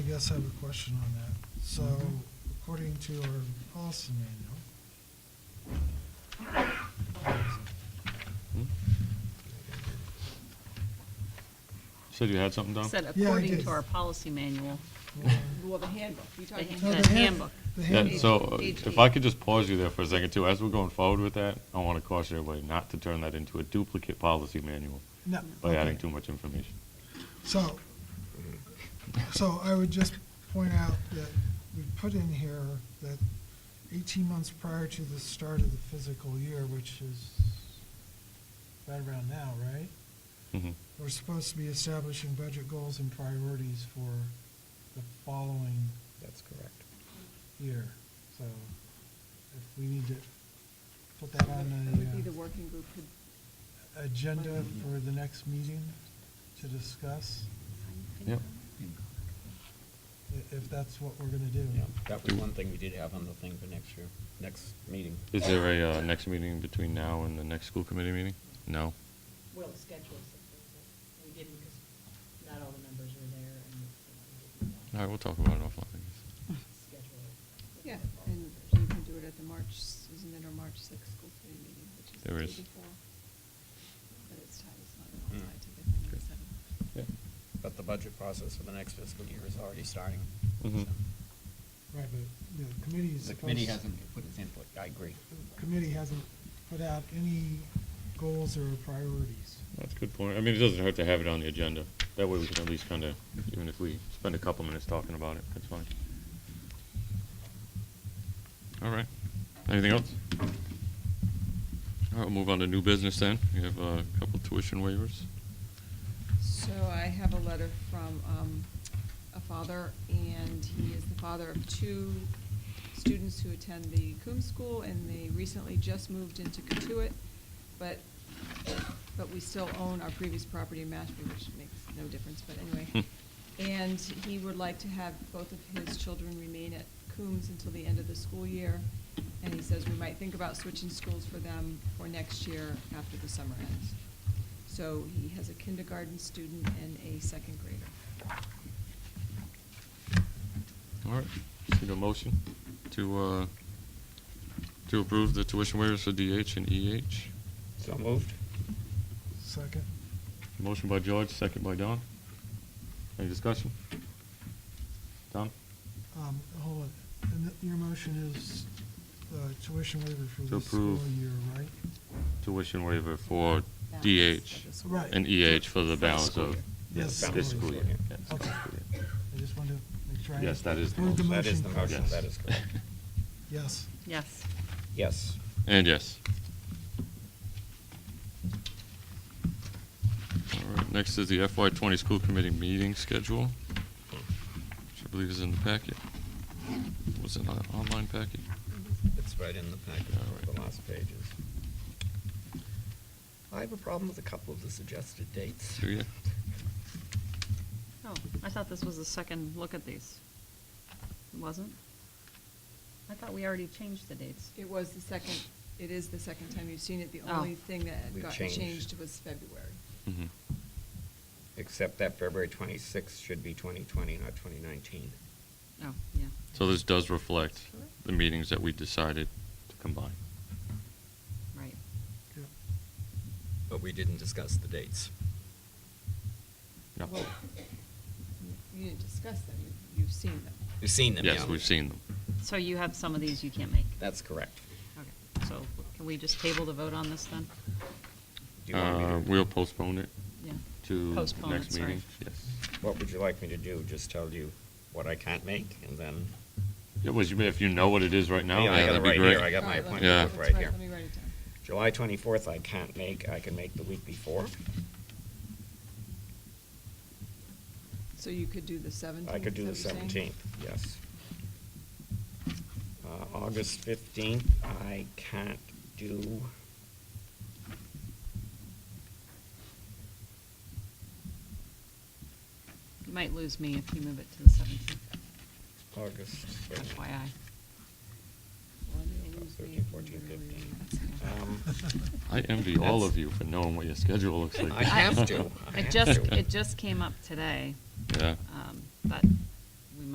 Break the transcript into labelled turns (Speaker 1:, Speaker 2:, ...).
Speaker 1: guess I have a question on that. So according to our policy manual,
Speaker 2: Said you had something, Don?
Speaker 3: Said
Speaker 1: Yeah, I
Speaker 3: according
Speaker 1: did.
Speaker 3: to our policy manual,
Speaker 4: Well, the handbook, you're
Speaker 3: the
Speaker 4: talking.
Speaker 1: No, hand-
Speaker 3: the handbook.
Speaker 1: the
Speaker 2: Yeah,
Speaker 1: handbook-
Speaker 2: so uh,
Speaker 4: Page
Speaker 2: if
Speaker 4: eight.
Speaker 2: I could just pause you there for a second too, as we're going forward with that, I want to caution everybody not to turn that into a duplicate policy manual
Speaker 1: no,
Speaker 2: by adding
Speaker 1: okay.
Speaker 2: too much information.
Speaker 1: So, so I would just point out that we put in here that eighteen months prior to the start of the physical year, which is right around now, right?
Speaker 2: Mhm.
Speaker 1: We're supposed to be establishing budget goals and priorities for the following
Speaker 5: That's correct.
Speaker 1: year. So if we need to put that
Speaker 4: That would be
Speaker 1: on
Speaker 4: the
Speaker 1: the uh,
Speaker 4: working group could,
Speaker 1: agenda for the next meeting to discuss,
Speaker 2: Yep.
Speaker 1: i- if that's what we're gonna do.
Speaker 5: Yeah, that was one thing we did have on the thing for next year, next meeting.
Speaker 2: Is there a uh, next meeting between now and the next school committee meeting? No?
Speaker 6: Will schedule something, but we didn't because not all the members were there and you know, we
Speaker 2: All
Speaker 6: didn't
Speaker 2: right, we'll talk about it offline. I guess.
Speaker 6: schedule it.
Speaker 4: yeah, and you can do it at the March, isn't it our March sixth school committee meeting, which is the
Speaker 2: There
Speaker 4: day
Speaker 2: is.
Speaker 4: before? But it's tied, it's not
Speaker 5: Mm.
Speaker 4: tied to the thing,
Speaker 2: Good.
Speaker 4: so.
Speaker 5: But the budget process for the next fiscal year is already starting. Mm-hmm.
Speaker 2: Mhm.
Speaker 5: so.
Speaker 1: Right, but the committee is
Speaker 5: The committee
Speaker 1: supposed-
Speaker 5: hasn't put its input, I agree.
Speaker 1: the Committee hasn't put out any goals or priorities.
Speaker 2: That's a good point. I mean, it doesn't hurt to have it on the agenda. That way we can at least kind of, even if we spend a couple minutes talking about it, that's fine. All right. Anything else? All right, we'll move on to new business then. We have uh, a couple tuition waivers.
Speaker 4: So I have a letter from um, a father, and he is the father of two students who attend the Coombs School, and they recently just moved into Katuitt, but, but we still own our previous property in Mashpee, which makes no difference, but
Speaker 2: Hmm.
Speaker 4: anyway. And he would like to have both of his children remain at Coombs until the end of the school year, and he says we might think about switching schools for them for next year after the summer ends. So he has a kindergarten student and a second grader.
Speaker 2: All right. Just need a motion to, uh, to approve the tuition waivers for DH and EH.
Speaker 5: So moved?
Speaker 1: Second,
Speaker 2: Motion by George, second by Don. Any discussion? Don?
Speaker 1: um, hold on, and th- your motion is uh, tuition waiver for
Speaker 2: To
Speaker 1: this school
Speaker 2: approve.
Speaker 1: year, right?
Speaker 2: Tuition waiver for
Speaker 4: Balance
Speaker 2: DH.
Speaker 4: of the school.
Speaker 1: Right.
Speaker 2: And EH for the balance of
Speaker 1: Yes,
Speaker 2: this
Speaker 1: school
Speaker 2: school
Speaker 1: year.
Speaker 2: year. Yeah, this
Speaker 1: Okay.
Speaker 2: school year.
Speaker 1: I just wanted to make sure. I
Speaker 2: Yes, that is the
Speaker 1: heard
Speaker 2: motion.
Speaker 5: That is the
Speaker 1: correctly.
Speaker 5: motion, that is correct.
Speaker 1: Yes.
Speaker 3: Yes.
Speaker 5: Yes.
Speaker 2: And yes. All right, next is the FY twenty school committee meeting schedule, which I believe is in the packet. Was it an online packet?
Speaker 5: It's right in the packet, on the last pages. I have a problem with a couple of the suggested dates.
Speaker 2: Do you?
Speaker 3: Oh, I thought this was the second look at these. It wasn't? I thought we already changed the dates.
Speaker 4: It was the second, it is the second time you've seen it. The
Speaker 3: Oh.
Speaker 4: only thing that
Speaker 5: We've
Speaker 4: got
Speaker 5: changed.
Speaker 4: changed was February.
Speaker 2: Mhm.
Speaker 5: Except that February 26th should be 2020, not 2019.
Speaker 3: Oh, yeah.
Speaker 2: So this does reflect the meetings that we decided to combine.
Speaker 3: Right.
Speaker 1: Yeah.
Speaker 5: But we didn't discuss the dates.
Speaker 2: No.
Speaker 5: Oh,
Speaker 4: Well, You didn't discuss them, you- you've seen them.
Speaker 5: We've seen them,
Speaker 2: Yes,
Speaker 5: yeah.
Speaker 2: we've seen them.
Speaker 3: So you have some of these you can't make?
Speaker 5: That's correct.
Speaker 3: Okay, so can we just table the vote on this then?
Speaker 5: Do you want me to-
Speaker 2: Uh, We'll postpone it to
Speaker 3: Yeah.
Speaker 2: next meeting.
Speaker 3: Postpone it, sorry.
Speaker 2: Yes.
Speaker 5: What would you like me to do? Just tell you what I can't make and then?
Speaker 2: Yeah, well, you may- if you know what it is right now,
Speaker 5: Yeah,
Speaker 2: yeah,
Speaker 5: I got it
Speaker 2: that'd be
Speaker 5: right
Speaker 2: great.
Speaker 5: here. I got my
Speaker 4: All right, let me-
Speaker 2: Yeah.
Speaker 5: appointment book right here.
Speaker 4: Let me write it down.
Speaker 5: July 24th, I can't make. I can make the week before.
Speaker 4: So you could do the 17th?
Speaker 5: I could do the
Speaker 4: is that what you're saying?
Speaker 5: 17th, yes. Uh, August 15th, I can't do.
Speaker 3: You might lose me if you move it to the seventeenth,
Speaker 5: August.
Speaker 3: FYI.
Speaker 4: Well, they lose me
Speaker 5: 13,
Speaker 4: if I'm
Speaker 5: 14,
Speaker 4: really
Speaker 5: 15.
Speaker 4: late.
Speaker 5: Um,
Speaker 2: I envy all
Speaker 5: That's-
Speaker 2: of you for knowing what your schedule looks like.
Speaker 5: I have to. I
Speaker 3: It
Speaker 5: have
Speaker 3: just,
Speaker 5: to.
Speaker 3: it just came up today,
Speaker 2: Yeah,
Speaker 3: um, but